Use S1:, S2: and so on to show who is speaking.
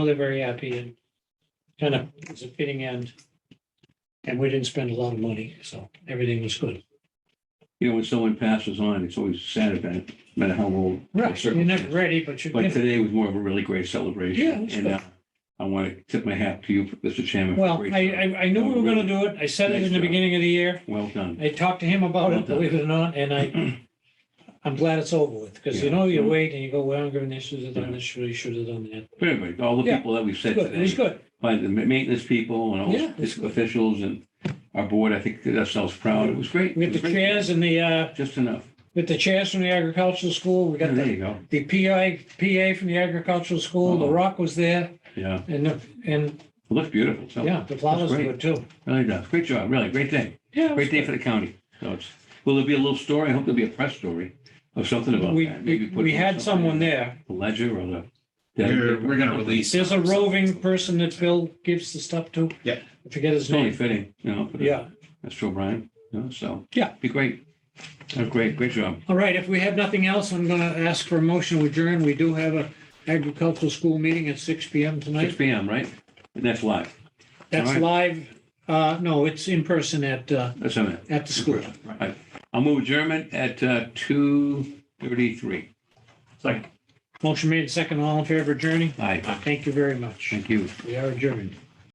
S1: They're very happy and kind of it's a fitting end. And we didn't spend a lot of money, so everything was good.
S2: You know, when someone passes on, it's always sad event, no matter how old. the
S1: You're never
S2: circumstance.
S1: ready, but you,
S2: But today was more of a really great celebration.
S1: Yeah, it was
S2: And
S1: good.
S2: uh, I want to tip my hat to you, Mr. Chairman. for
S1: well,
S2: great
S1: I,
S2: job.
S1: I, I knew we were gonna do it. I said it in the beginning of the year.
S2: Well done.
S1: I talked to him about it, believe it or not, and I, I'm glad it's over with, because you know, you
S2: Mm-hmm.
S1: wait and you go, well, I'm gonna, should have done this, should have, should have done that.
S2: For everybody, all the
S1: Yeah.
S2: people that we've said
S1: Good, it was
S2: today,
S1: good.
S2: by the ma- maintenance people and all
S1: Yeah.
S2: the officials and our board, I think did ourselves proud. It was great.
S1: We
S2: It
S1: had
S2: was
S1: the
S2: great.
S1: chairs and the, uh,
S2: Just enough.
S1: with the chairs from the agricultural school. We
S2: Yeah,
S1: got
S2: There
S1: the,
S2: you go.
S1: the PI, PA from the agricultural school. The
S2: Uh-huh.
S1: rock was there
S2: Yeah.
S1: and, the- and,
S2: It looks beautiful. So,
S1: yeah, the flowers were
S2: great.
S1: good too.
S2: really does. Great job. Really, great day.
S1: Yeah. it was
S2: Great day for the county. So it's, will there be a little story? I hope there'll be a press story of something
S1: good.
S2: about
S1: We,
S2: that. Maybe
S1: we
S2: put
S1: we had
S2: something
S1: someone
S2: in
S1: there.
S2: the Ledger or the.
S3: We're, we're gonna release.
S1: There's a roving person that Bill gives the stuff to.
S3: Yeah.
S1: I forget his
S2: It's only
S1: name.
S2: fitting, you know. for the-
S1: Yeah.
S2: Mr. O'Brien, you know, so.
S1: Yeah.
S2: Be great. Oh, Great, great job.
S1: All right. If we have nothing else, I'm going to ask for a motion to adjourn. We do have a agricultural school meeting at six PM
S2: Six
S1: tonight.
S2: P M, right? And that's live.
S1: That's
S2: All
S1: live. Uh, no, it's in person at, uh,
S2: That's on it.
S1: at the school.
S2: Right. I'll move German at uh, two thirty-three.
S1: Motion made second. All in favor of adjourning?
S2: Aye,
S1: Thank you very much.
S2: thank you.
S1: We are adjourned.